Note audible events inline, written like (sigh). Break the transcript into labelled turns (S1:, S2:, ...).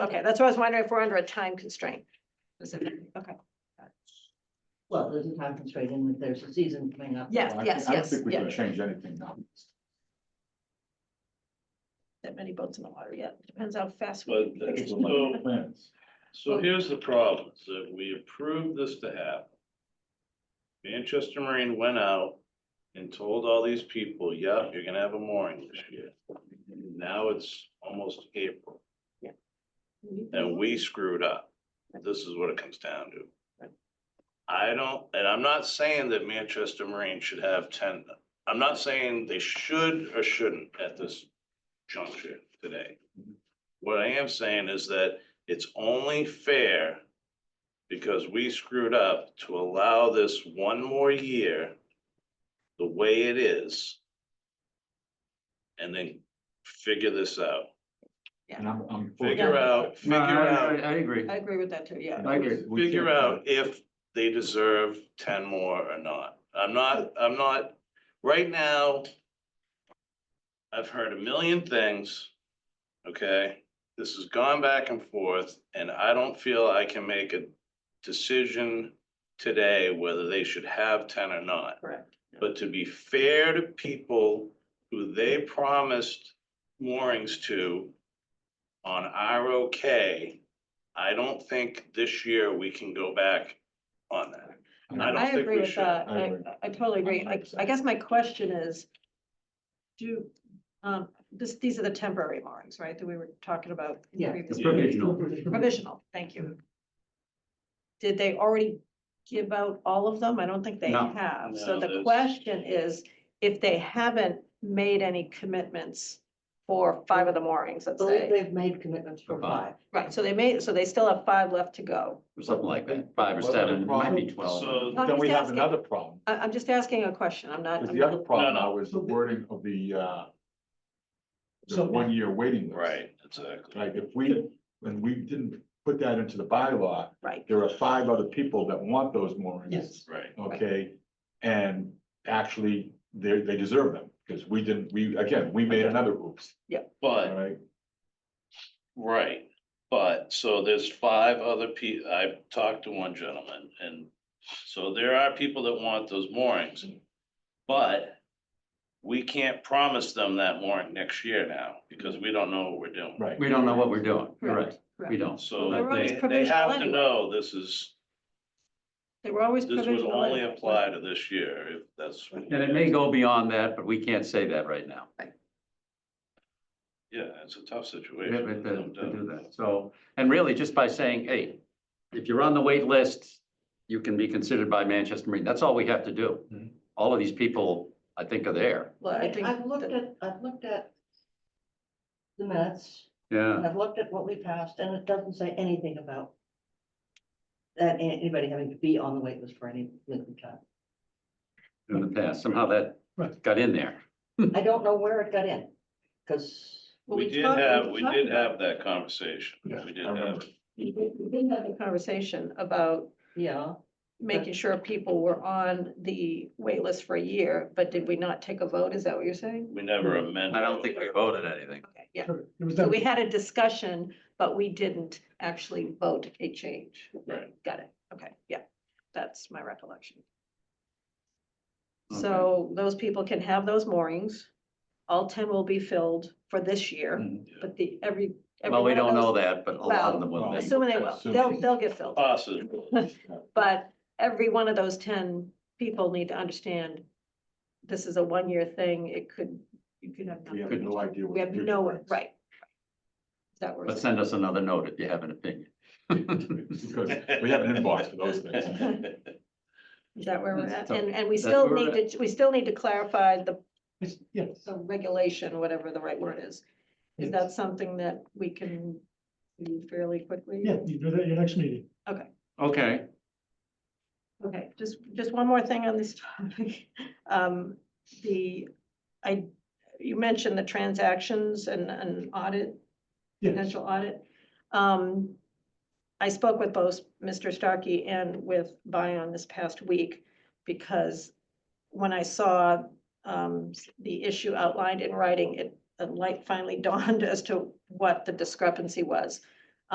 S1: Okay, that's what I was wondering if we're under a time constraint. Okay.
S2: Well, there's a time constraint and there's a season coming up.
S1: Yes,
S3: Well, I
S1: yes,
S3: think- I don't
S1: yes,
S3: think we can
S1: yeah.
S3: change anything now.
S1: That many boats in the water yet. Depends how fast
S4: But
S1: we.
S4: that's
S3: It's
S4: so,
S3: the like plans.
S4: so here's the problem, is that we approved this to happen. Manchester Marine went out and told all these people, yeah, you're gonna have a mooring this year. Now it's almost April, and we screwed up. This is what it comes down to. I don't, and I'm not saying that Manchester Marine should have ten, I'm not saying they should or shouldn't at this juncture today. What I am saying is that it's only fair because we screwed up to allow this one more year the way it is. And then figure this out.
S3: And I'm, I'm. for
S4: Figure
S3: that.
S4: out, figure
S5: No, I, I,
S4: out,
S5: I agree.
S1: I agree with that too, yeah.
S5: I agree.
S3: We
S4: figure
S3: can't-
S4: out if they deserve ten more or not. I'm not, I'm not, right now, I've heard a million things, okay? This has gone back and forth, and I don't feel I can make a decision today whether they should have ten or not.
S1: Correct.
S4: But to be fair to people who they promised moorings to on our okay, I don't think this year we can go back on that.
S3: And
S4: I
S3: I
S4: don't
S1: I
S4: think we
S1: agree with
S4: should.
S1: that.
S3: I
S1: I,
S3: agree.
S1: I totally agree. I, I
S3: 100%.
S1: guess my question is, do, um, this, these are the temporary moorings, right, that we were talking about? in
S2: Yeah.
S1: previous-
S5: It's provisional.
S1: Provisional, thank you. Did they already give out all of them? I don't think they
S5: No.
S1: have. So
S4: No,
S1: the
S4: there's-
S1: question is, if they haven't made any commitments for five of the moorings,
S2: I
S1: let's
S2: believe
S1: say.
S2: they've made commitments for
S5: For five.
S2: five.
S1: Right, so they made, so they still have five left to go.
S5: Or something like that, five or seven, it might be twelve.
S4: So,
S1: I'm
S3: Then we
S1: just
S3: have
S1: asking.
S3: another problem,
S1: I, I'm just asking a question. I'm not.
S3: because
S1: I'm
S3: the other
S1: not-
S3: problem
S4: No, no.
S3: now is the wording of the, uh, the
S2: So-
S3: one-year waiting list.
S4: right, exactly.
S3: Right, if we, when we didn't put that into the bylaw,
S1: Right,
S3: there are five other people that want those moorings.
S2: Yes.
S4: Right.
S3: Okay, and actually, they, they deserve them, because we didn't, we, again, we made another oops, all
S4: But,
S3: right?
S4: right, but, so there's five other people. I talked to one gentleman, and so there are people that want those moorings. But we can't promise them that mooring next year now, because we don't know what we're doing.
S3: Right.
S5: We don't know what we're doing, You're right, we
S1: correct.
S5: don't.
S4: So
S1: Well, they're always
S4: they, they have to
S1: provisional
S4: know this is,
S1: They were always
S4: this would
S1: provisional.
S4: only
S1: anyway.
S4: apply to this year, if that's. what
S5: And it may go beyond that, but we can't say that right now.
S4: Yeah, it's a tough
S5: We
S4: situation.
S5: have to,
S4: there's no
S5: to do
S4: doubt.
S5: that, so, and really, just by saying, hey, if you're on the wait list, you can be considered by Manchester Marine, that's all we have to do.
S3: Mhm.
S5: All of these people, I think, are there,
S1: Well, I think.
S2: I've looked
S1: that-
S2: at, I've looked at the minutes
S5: yeah,
S2: and I've looked at what we passed and it doesn't say anything about that a- anybody having to be on the wait list for any length of time.
S1: (laughs)
S5: in the past, somehow that
S3: Right.
S5: got in there.
S2: I don't know where it got in, because
S1: well,
S4: We did
S1: talked-
S4: have, we
S1: talked
S4: did
S1: about-
S4: have that conversation.
S3: Yeah,
S4: We did
S3: I remember.
S4: have,
S1: We did- we did have a conversation about
S2: Yeah,
S1: making sure people were on the wait list for a year, but did we not take a vote? Is that what you're saying?
S4: we never amended.
S5: I don't think we voted anything.
S1: Okay, yeah. So we had a discussion, but we didn't actually vote a change.
S4: Right.
S1: Got it. Okay, yeah. That's my recollection.
S5: Okay.
S1: So those people can have those moorings. All ten will be filled for this year,
S3: Mhm.
S1: but the, every. every
S5: Mm. Well, we
S1: one of
S5: don't know
S1: those-
S5: that, but a lot of them will.
S3: Well,
S5: be.
S1: Assuming they will, they'll, they'll get filled.
S4: Possible.
S1: But every one of those ten people need to understand, this is a one-year thing, it could, you could have.
S3: We have
S1: nothing.
S6: (laughs)
S3: no idea. what
S1: We have
S3: the future
S1: no,
S3: brings.
S1: right. Is that where?
S5: But
S1: it's
S5: send us another note if you have an opinion.
S3: (laughs) Because we have an inbox for those things.
S6: (laughs)
S1: Is that where we're
S5: That's
S1: at?
S5: tough.
S1: And, and we
S5: That's
S1: still
S5: where we're
S1: need to, we still need to clarify the,
S3: Yes.
S1: the regulation, whatever the right word is. Is
S6: Yes.
S1: that something that we can do fairly quickly?
S6: Yeah, you do that at your next meeting.
S5: Okay,
S1: Okay, just, just one more thing on this (laughs) topic. Um, the, I, you mentioned the transactions and, and audit,
S6: Yes,
S1: potential audit. Um, I spoke with both Mr. Starkey and with Bion this past week because when I saw, um, the (laughs) issue outlined in writing, it, a light finally dawned as to what the discrepancy was.